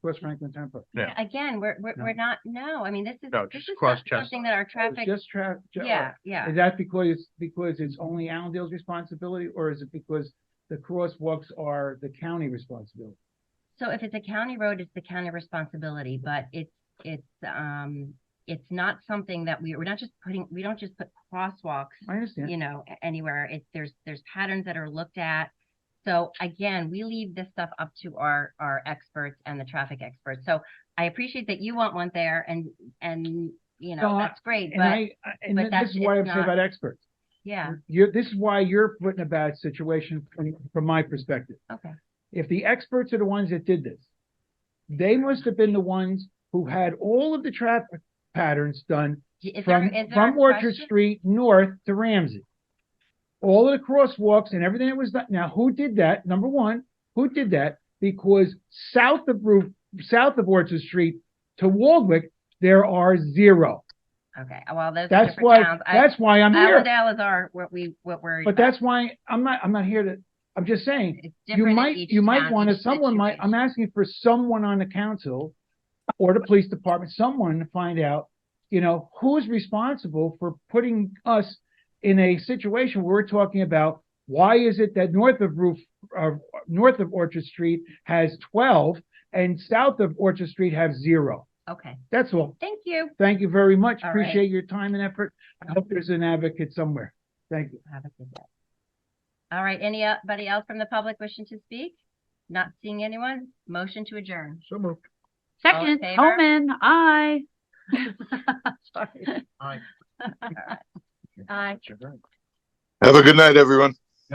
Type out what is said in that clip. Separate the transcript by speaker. Speaker 1: West Franklin Turnpike.
Speaker 2: Yeah.
Speaker 3: Again, we're, we're,
Speaker 1: No.
Speaker 3: we're not, no, I mean, this is,
Speaker 2: No,
Speaker 3: this
Speaker 2: just
Speaker 3: is
Speaker 2: cross
Speaker 3: not
Speaker 2: Chestnut.
Speaker 3: something that our
Speaker 1: Oh,
Speaker 3: traffic,
Speaker 1: Just tra- ju-
Speaker 3: yeah, yeah.
Speaker 1: Is that because, it's because it's only Allendale's responsibility, or is it because the crosswalks are the county responsibility?
Speaker 3: So if it's a county road, it's the county responsibility, but it's, it's, um, it's not something that we, we're not just putting, we don't just put crosswalks,
Speaker 1: I understand.
Speaker 3: you know, a- anywhere. It's, there's, there's patterns that are looked at. So again, we leave this stuff up to our, our experts and the traffic experts. So I appreciate that you want one there and, and, you
Speaker 1: No,
Speaker 3: know,
Speaker 1: I-
Speaker 3: that's great,
Speaker 1: And
Speaker 3: but
Speaker 1: I, I- and
Speaker 3: but
Speaker 1: this
Speaker 3: that's-
Speaker 1: is why I'm
Speaker 3: it's
Speaker 1: saying
Speaker 3: not-
Speaker 1: about experts.
Speaker 3: yeah,
Speaker 1: You're, this is why you're putting a bad situation from, from my perspective.
Speaker 3: okay.
Speaker 1: If the experts are the ones that did this, they must have been the ones who had all of the traffic patterns done
Speaker 3: Is there-
Speaker 1: from,
Speaker 3: is there
Speaker 1: from
Speaker 3: a
Speaker 1: Orchard
Speaker 3: question?
Speaker 1: Street north to Ramsey. All of the crosswalks and everything that was done. Now, who did that? Number one, who did that? Because south of Roof, south of Orchard Street to Waldwick, there are zero.
Speaker 3: Okay, well, those are
Speaker 1: That's
Speaker 3: different
Speaker 1: why,
Speaker 3: towns. I-
Speaker 1: that's why I'm here.
Speaker 3: Allendale is our, what we, what we're. um,
Speaker 1: But that's why I'm not, I'm not here to, I'm just saying,
Speaker 3: It's
Speaker 1: you
Speaker 3: different in
Speaker 1: might,
Speaker 3: each
Speaker 1: you might
Speaker 3: town,
Speaker 1: want to,
Speaker 3: each
Speaker 1: someone might, I'm
Speaker 3: situation.
Speaker 1: asking for someone on the council or the police department, someone to find out, you know, who's responsible for putting us in a situation where we're talking about, why is it that north of roof, uh, north of Orchard Street has twelve and south of Orchard Street have zero?
Speaker 3: Okay,
Speaker 1: That's all.
Speaker 3: thank you.
Speaker 1: Thank you very much.
Speaker 3: All right.
Speaker 1: Appreciate your time and effort. I hope there's an advocate somewhere. Thank you.
Speaker 3: Have a good day. All right, uh, anybody else from the public wishing to speak? Not seeing anyone? Motion to adjourn.
Speaker 1: So moved.
Speaker 3: All
Speaker 4: Second,
Speaker 3: in favor?
Speaker 4: Omen, aye.
Speaker 3: Sorry. Aye.
Speaker 2: Sure.
Speaker 5: Have a good night, everyone.